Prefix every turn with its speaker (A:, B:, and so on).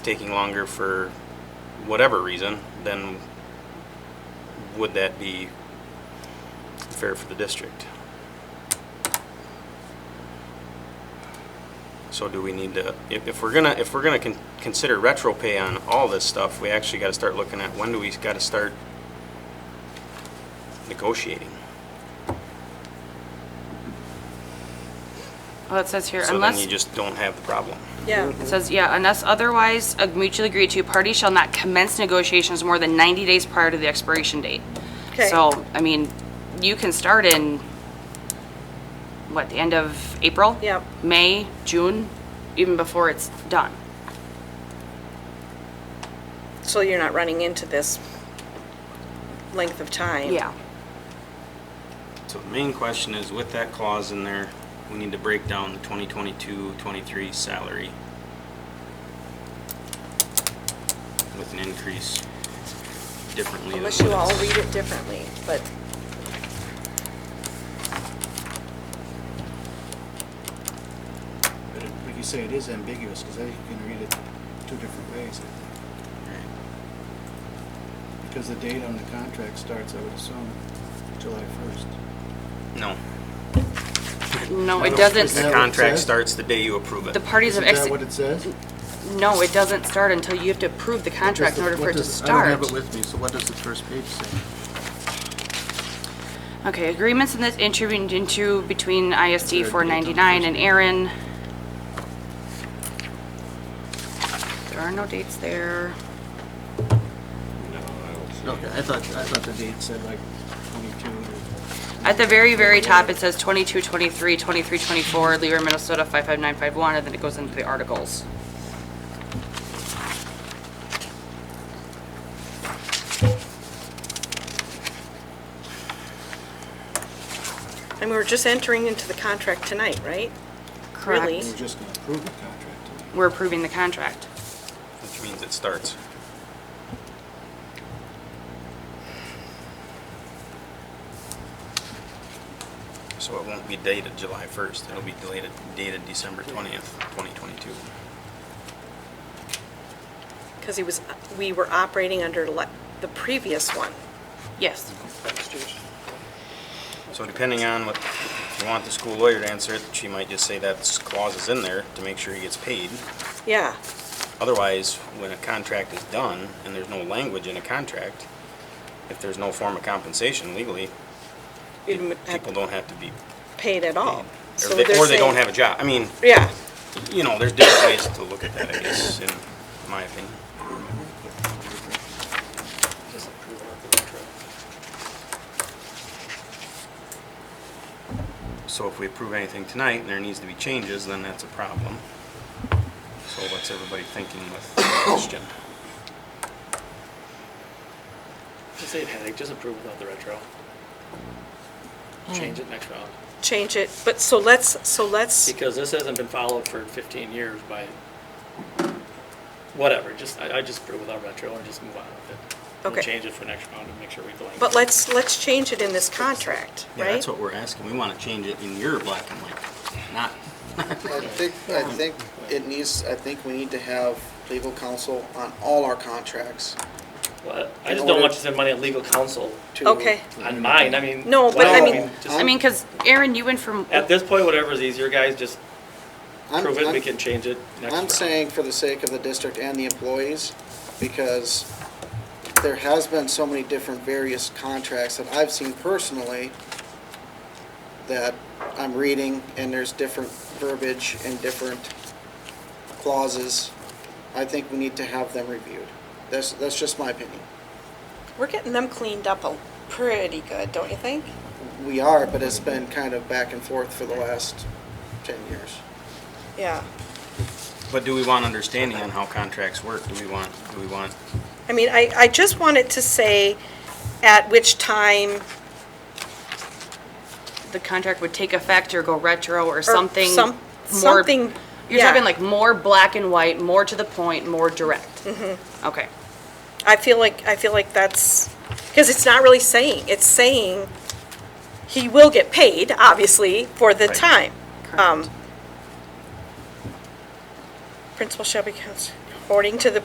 A: taking longer for whatever reason, then would that be fair for the district? So do we need to, if, if we're gonna, if we're gonna con- consider retro pay on all this stuff, we actually gotta start looking at, when do we gotta start negotiating?
B: Well, it Oh, says here,
A: So then
B: unless,
A: you
B: it
A: just don't have the problem.
C: Yeah,
B: says, yeah, unless otherwise ag- mutually agreed to, party shall not commence negotiations more than 90 days prior to the expiration date.
C: Okay.
B: So, I mean, you can start in, what, the end of April?
C: Yep.
B: May, June, even before it's done.
C: so you're not running into this length of time.
B: Yeah.
A: So the main question is, with that clause in there, we need to break down the 2022-23 salary with an increase differently. than
C: Unless you
A: what
C: all
A: it's-
C: read it differently, but
D: But it- like you say, it is ambiguous, because they can read it two different ways, I think.
A: Right.
D: Because the date on the contract starts, I would assume, July first.
A: No.
B: No, it
D: Is
A: The
D: that
B: doesn't,
D: what it
A: contract
D: says?
A: starts the day you approve it.
B: the parties have,
D: Is
B: ex- Mm,
D: that what it says?
B: no, it doesn't start until you have to approve the contract in order for it to start.
D: I don't have it with me, so what does the first page say?
B: Okay, agreements in this entered into between
D: Is
B: ISD
D: there a date on the
B: 499
D: first
B: and Aaron. There are no dates there.
D: Okay, I thought, I thought the date said like twenty-two or,
B: At the very, very top, it says 22, 23, 23, 24, Leader, Minnesota 55951, and then it goes into the articles.
C: And we're just entering into the contract tonight, right? Really?
D: we're just gonna approve the contract. tonight.
B: We're approving the contract.
A: Which means it starts. So it won't be dated July 1st, it'll be dated, dated December 20th, 2022.
C: Because he was, we were operating under le- the previous one.
B: Yes.
A: So depending on what, if you want the school lawyer to answer it, she might just say that clause is in there to make sure he gets paid.
C: Yeah,
A: Otherwise, when a contract is done and there's no language in a contract, if there's no form of compensation legally,
C: You m- have
A: people don't have to be
C: paid at all.
A: paid.
C: So
A: Or they,
C: they're
A: or they don't
C: saying-
A: have a job. I mean,
C: Yeah,
A: you know, there's different ways to look at that, I guess, in my opinion. So if we approve anything tonight and there needs to be changes, then that's a problem. So what's everybody thinking with the question?
E: Just say headache, just approve without the retro.
C: Hmm.
E: Change it next round,
C: change it, but so let's, so let's,
E: because this hasn't been followed for fifteen years by whatever, just, I, I just approve without retro and just move on with it. We'll
C: Okay.
E: Change it for next round and make sure we delay.
C: but let's, let's change it in this contract,
A: Yeah,
C: right?
A: that's what we're asking. We want to change it in your black and white, not,
F: I think, I think it needs, I think we need to have legal counsel on all our contracts.
E: Well, I just
F: in
E: don't
F: order-
E: want you to spend money on legal counsel
F: to-
C: Okay,
E: on
F: Mm-hmm.
E: mine, I mean.
C: No, but
E: why
C: I
E: don't
C: mean-
E: we just-
B: I mean, because Aaron, you went from,
E: At this point, whatever's easier, guys, just
F: I'm-
E: prove it, we
F: I'm-
E: can change it next round.
F: I'm saying for the sake of the district and the employees, because there has been so many different various contracts that I've seen personally that I'm reading, and there's different verbiage and different clauses. I think we need to have them reviewed. That's, that's just my opinion.
C: we're getting them cleaned up a pretty good, don't you think?
F: We are, but it's been kind of back and forth for the last 10 years.
C: Yeah.
A: but do we want understanding on how contracts work? Do we want, do we want
C: I mean, I, I just wanted to say at which time
B: the contract would take effect or go retro or
C: or
B: something
C: some-
B: more.
C: Something,
B: You're
C: yeah.
B: talking like more black and white, more to the point, more direct.
C: Mm-hmm.
B: Okay.
C: I feel like, I feel like that's, because it's not really saying, it's saying he will get paid, obviously, for the
A: Right.
C: time. Um,
B: Correct.
C: Principal shall be cons- according to the